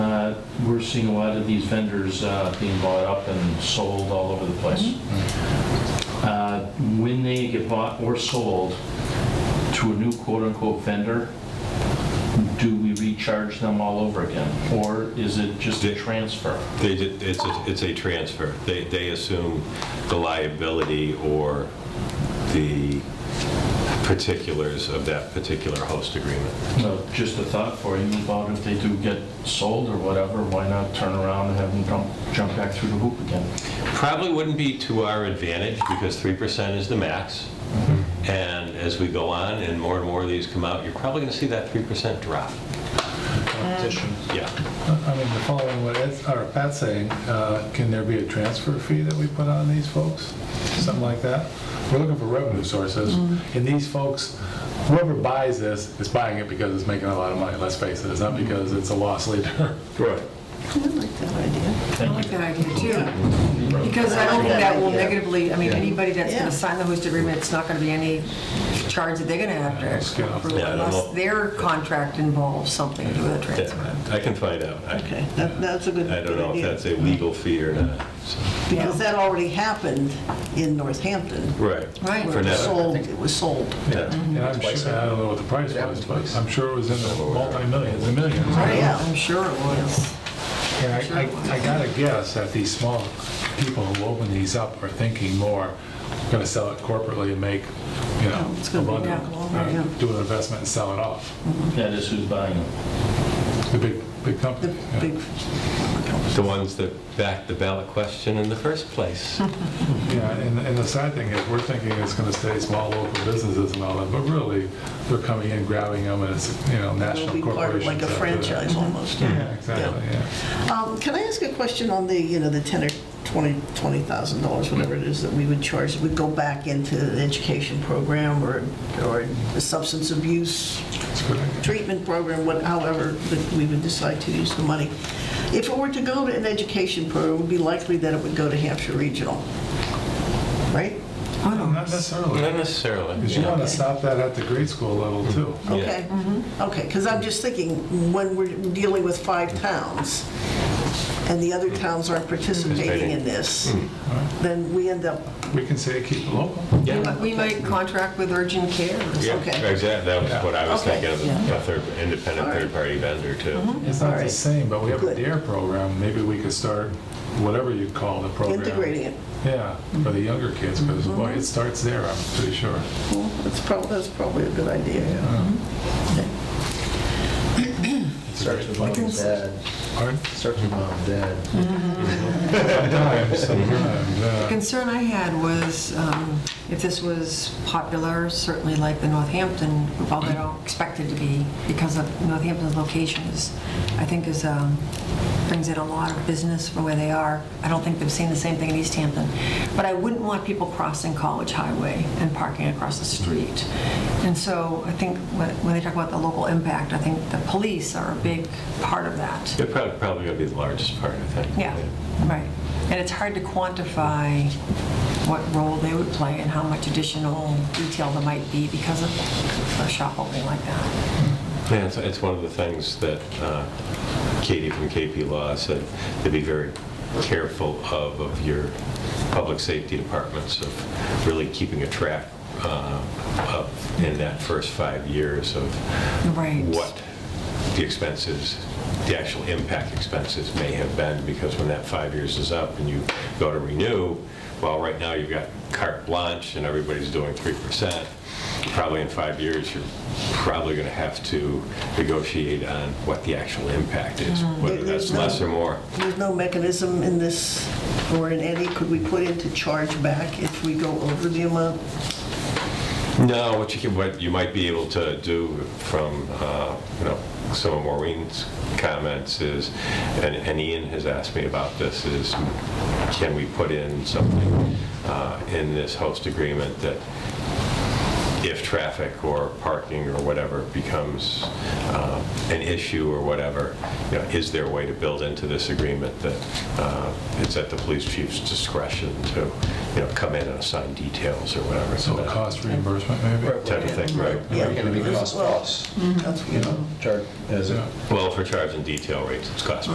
Uh, we're seeing a lot of these vendors uh, being bought up and sold all over the place. Uh, When they get bought or sold to a new quote-unquote vendor, do we recharge them all over again? Or is it just a transfer? They, did- it's, a- it's a transfer. They, they assume the liability or the particulars of that particular host agreement. So just a thought for you about if they do get sold or whatever, why not turn around and have them jump, jump back through the hoop again? Probably wouldn't be to our advantage because 3% is the max. And as we go on and more and more of these come out, you're probably going to see that 3% drop. Competition. Yeah. I mean, following what Ed's, or Pat's saying, uh, can there be a transfer fee that we put on these folks? Something like that? We're looking for revenue sources, and these folks, whoever buys this, is buying it because it's making a lot of money, let's face it, it's not because it's a loss leader. Right. I like that idea. I like that idea too, because I don't think that will negatively, I mean, anybody that's Yeah. gonna sign the host agreement, it's not gonna be any charge that they're gonna have Yeah, it's to good. approve Yeah, I don't unless know. their contract involves something to do with a transfer. I can find out. I Okay, that, that's a good I don't know if idea. that's a legal fee or not. so. Because that already happened in Northampton. Right. Right. Where For it was now. sold, it was sold. Yeah. And I'm sure, I don't know what the price was, but I'm sure it was in the multi-millions, the millions. Yeah. I'm sure it was. And I, I- I gotta guess that these small people who open these up are thinking more, gonna sell it corporately and make, you know, Oh, it's a gonna be bundle. down longer, Uh, yeah. Do an investment and sell it off. That is who's buying them. The big, big The company. yeah. big, The ones that backed the ballot question in the first place. Yeah, and, and the sad thing is, we're thinking it's gonna stay small local businesses and all that, but really, they're coming in, grabbing them, and it's, you know, it'll national be part of corporations. like a after that. franchise almost. Yeah, exactly, yeah. Um, Can I ask a question on the, you know, the 10 or 20, $20,000, dollars, whatever it is that we would charge, that would go back into the education program or, or the substance abuse It's a good idea. treatment program, what, however that we would decide to use the money. If it were to go to an education program, it would be likely that it would go to Hampshire Regional, right? Oh. No, Not necessarily, Not necessarily. because you wanna stop that at the grade school level too. Yeah. Okay, okay, because I'm just thinking, when we're dealing with five towns, and the other towns aren't participating in this, then we end up, We can say keep it local. Yeah. We might contract with urgent care or something. Yeah, Okay. Exactly, that was what I was Okay, thinking of, yeah. a third, independent All right. Mm-hmm. third-party vendor too. It's not the Alright. same, but we have a Good. DARE program, maybe we could start whatever you call the program. Integrating Mm-hmm. it. Yeah, for the younger kids, because boy, it starts there, I'm pretty sure. well, that's probably, that's probably a good idea. Okay. Starts with mom and dad. Pardon? Starts with mom and dad. Sometimes, sometimes, The yeah. concern I had was um, if this was popular, certainly like the Northampton, although I don't expect it to be because of Northampton's location is, I think is, um, brings in a lot of business from where they are. I don't think they've seen the same thing in East Hampton. But I wouldn't want people crossing College Highway and parking across the street. And so I think when when they talk about the local impact, I think the police are a big part of that. They're prob- probably going to be the largest part, I think. Yeah, right. And it's hard to quantify what role they would play and how much additional detail there might be because of a shop opening like that. Yeah, it's, it's one of the things that uh, Katie from KP Law said, to be very careful of, of your public safety departments, of really keeping a track uh, of, in that first five years of Right. what the expenses, the actual impact expenses may have been, because when that five years is up and you go to renew, well, right now you've got carte blanche and everybody's doing 3%. Probably in five years, you're probably going to have to negotiate on what the actual impact is, whether that's Mm. There's no- less or more. There's no mechanism in this, or in any, could we put in to charge back if we go over the amount? No, what you can, what you might be able to do from, uh, you know, some of Maureen's comments is, and and Ian has asked me about this, is can we put in something uh, in this host agreement that if traffic or parking or whatever becomes uh, an issue or whatever, you know, is there a way to build into this agreement that uh, it's at the police chief's discretion to, you know, come in and assign details or whatever? So a that- cost reimbursement, maybe? type of thing, right? Yeah. Mm-hmm. It's gonna be cost plus, That's, you know. charge as a Yeah. Well, for charge and detail rates, it's cost